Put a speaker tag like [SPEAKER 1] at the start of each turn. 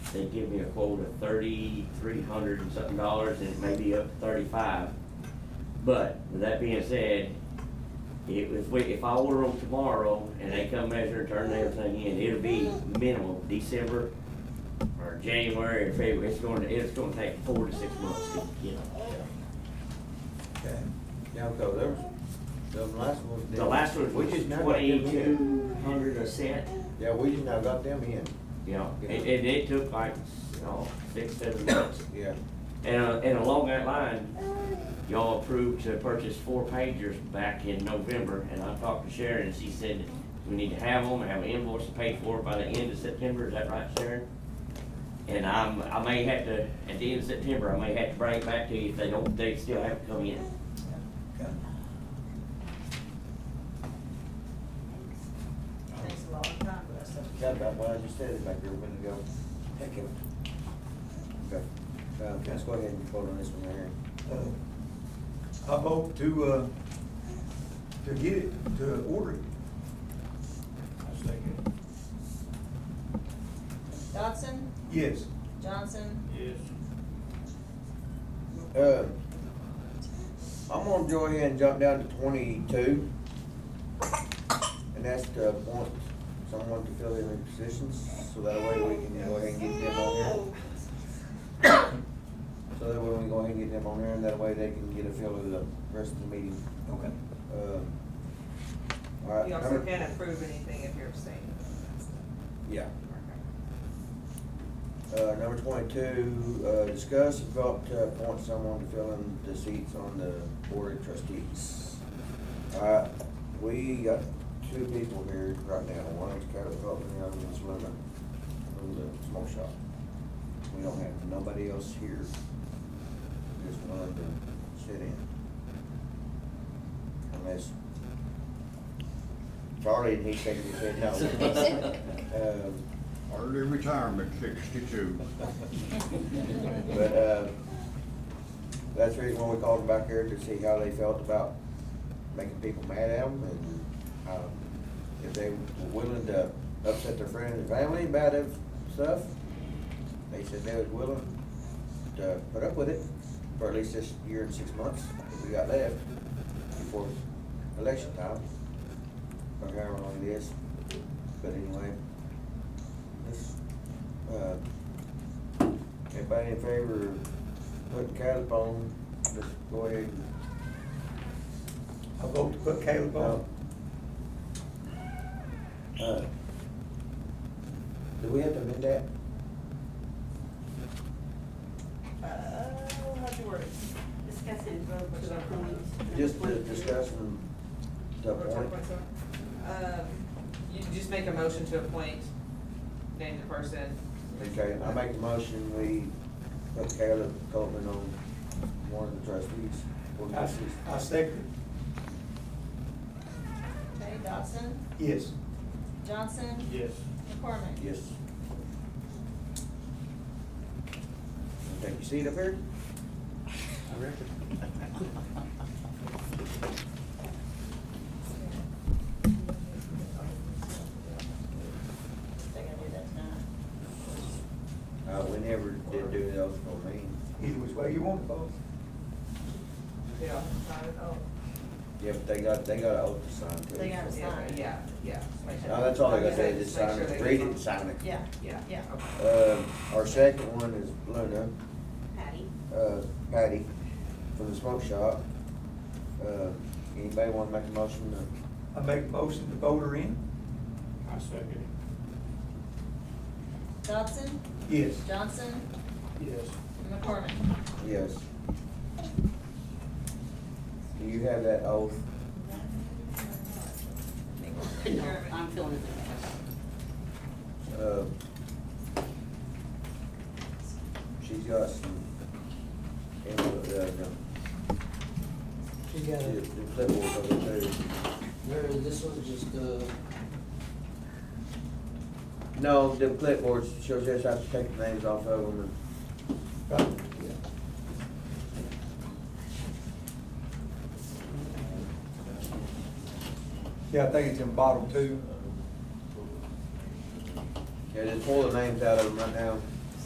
[SPEAKER 1] they give me a quote of thirty-three hundred and something dollars, and it may be up to thirty-five. But, with that being said, if, if we, if I order them tomorrow, and they come measure and turn everything in, it'll be minimum December, or January, or February, it's gonna, it's gonna take four to six months to get them.
[SPEAKER 2] Okay. Yeah, because there was, the last ones.
[SPEAKER 1] The
[SPEAKER 2] didn't-
[SPEAKER 1] last one
[SPEAKER 2] we
[SPEAKER 1] was
[SPEAKER 2] just now got them in.
[SPEAKER 1] twenty-two hundred a set,
[SPEAKER 2] Yeah, we just now got them in,
[SPEAKER 1] you know, and, and it took like, you know, six, seven months.
[SPEAKER 2] yeah.
[SPEAKER 1] And, uh, and along that line, y'all approved to purchase four pagers back in November, and I talked to Sharon, and she said we need to have them, have an invoice paid for by the end of September, is that right, Sharon? And I'm, I may have to, at the end of September, I may have to bring it back to you if they don't, they still haven't come in.
[SPEAKER 2] Okay.
[SPEAKER 3] Takes a long time for that stuff.
[SPEAKER 2] Yeah, about what I just said back there a minute ago. Thank you. Okay, uh, let's go ahead and vote on this one right here.
[SPEAKER 4] Uh, I vote to, uh, to get it, to order it. I second.
[SPEAKER 3] Dodson,
[SPEAKER 4] Yes.
[SPEAKER 3] Johnson,
[SPEAKER 4] Yes.
[SPEAKER 2] Uh, I'm gonna go ahead and jump down to twenty-two. And that's to appoint someone to fill in the positions, so that way we can go ahead and get them on here. So that way we can go ahead and get them on here, and that way they can get a feel of the rest of the meeting.
[SPEAKER 4] Okay.
[SPEAKER 2] Uh,
[SPEAKER 3] you
[SPEAKER 2] Alright,
[SPEAKER 3] also
[SPEAKER 2] number-
[SPEAKER 3] can't approve anything if you're abstaining.
[SPEAKER 2] yeah. Uh, number twenty-two, uh, discuss and vote to appoint someone to fill in the seats on the board of trustees. Uh, we got two people here right now, one is Carol Felton, the other one's Linda, from the smoke shop. We don't have nobody else here, just one to sit in. Unless Charlie, and he shaking his head no. Um,
[SPEAKER 5] Early retirement, sixty-two.
[SPEAKER 2] But, uh, that's the reason why we called them back here, to see how they felt about making people mad at them, and, um, if they were willing to upset their friends and family about it stuff. They said they was willing to put up with it for at least this year and six months that we got left before election time, or however long it is. But anyway, this, uh, Everybody in favor of putting Caleb on, just go ahead and.
[SPEAKER 4] I vote to put Caleb on.
[SPEAKER 2] Uh, Do we have to amend that?
[SPEAKER 3] Uh, how'd you word it?
[SPEAKER 6] Discuss and vote to appoint.
[SPEAKER 2] Just to discuss and to appoint?
[SPEAKER 3] Um, you just make a motion to appoint, name the person.
[SPEAKER 2] Okay, I make a motion, we put Caleb Coleman on one of the trustees. board
[SPEAKER 4] I,
[SPEAKER 2] trustees.
[SPEAKER 4] I second.
[SPEAKER 3] Okay, Dodson,
[SPEAKER 4] Yes.
[SPEAKER 3] Johnson. Yes. McCormick.
[SPEAKER 2] Yes. Take your seat up here.
[SPEAKER 4] I reckon.
[SPEAKER 3] They gonna do that tonight?
[SPEAKER 2] Uh, we never did do those for me.
[SPEAKER 4] Either which way you want to vote.
[SPEAKER 3] Yeah. Oh.
[SPEAKER 2] Yeah, but they got, they got an oath to sign too.
[SPEAKER 3] They got to sign.
[SPEAKER 7] Yeah, yeah.
[SPEAKER 2] No, Oh, that's all I gotta say, just
[SPEAKER 7] Make
[SPEAKER 2] sign
[SPEAKER 7] sure
[SPEAKER 2] it,
[SPEAKER 7] they-
[SPEAKER 2] read it and sign it.
[SPEAKER 3] Yeah,
[SPEAKER 7] Yeah.
[SPEAKER 3] yeah.
[SPEAKER 7] Okay.
[SPEAKER 2] Um, our second one is Luna,
[SPEAKER 6] Patty.
[SPEAKER 2] uh, Patty, from the smoke shop. Uh, anybody wanna make a motion to,
[SPEAKER 4] I make a motion to vote her in.
[SPEAKER 5] I second
[SPEAKER 3] Dodson,
[SPEAKER 4] Yes.
[SPEAKER 3] Johnson,
[SPEAKER 4] Yes.
[SPEAKER 3] McCormick.
[SPEAKER 2] yes? Do you have that oath?
[SPEAKER 6] No, I'm feeling it.
[SPEAKER 2] Uh, she's got some, and, uh, the,
[SPEAKER 8] We got
[SPEAKER 2] the
[SPEAKER 8] it.
[SPEAKER 2] the clipboard over there.
[SPEAKER 8] Mary, this one's just, uh,
[SPEAKER 2] No, the clipboards, she'll just have to take the names off of them and
[SPEAKER 4] Right. Yeah, I think it's in bottom two.
[SPEAKER 2] Yeah, just pull the names out of them right now.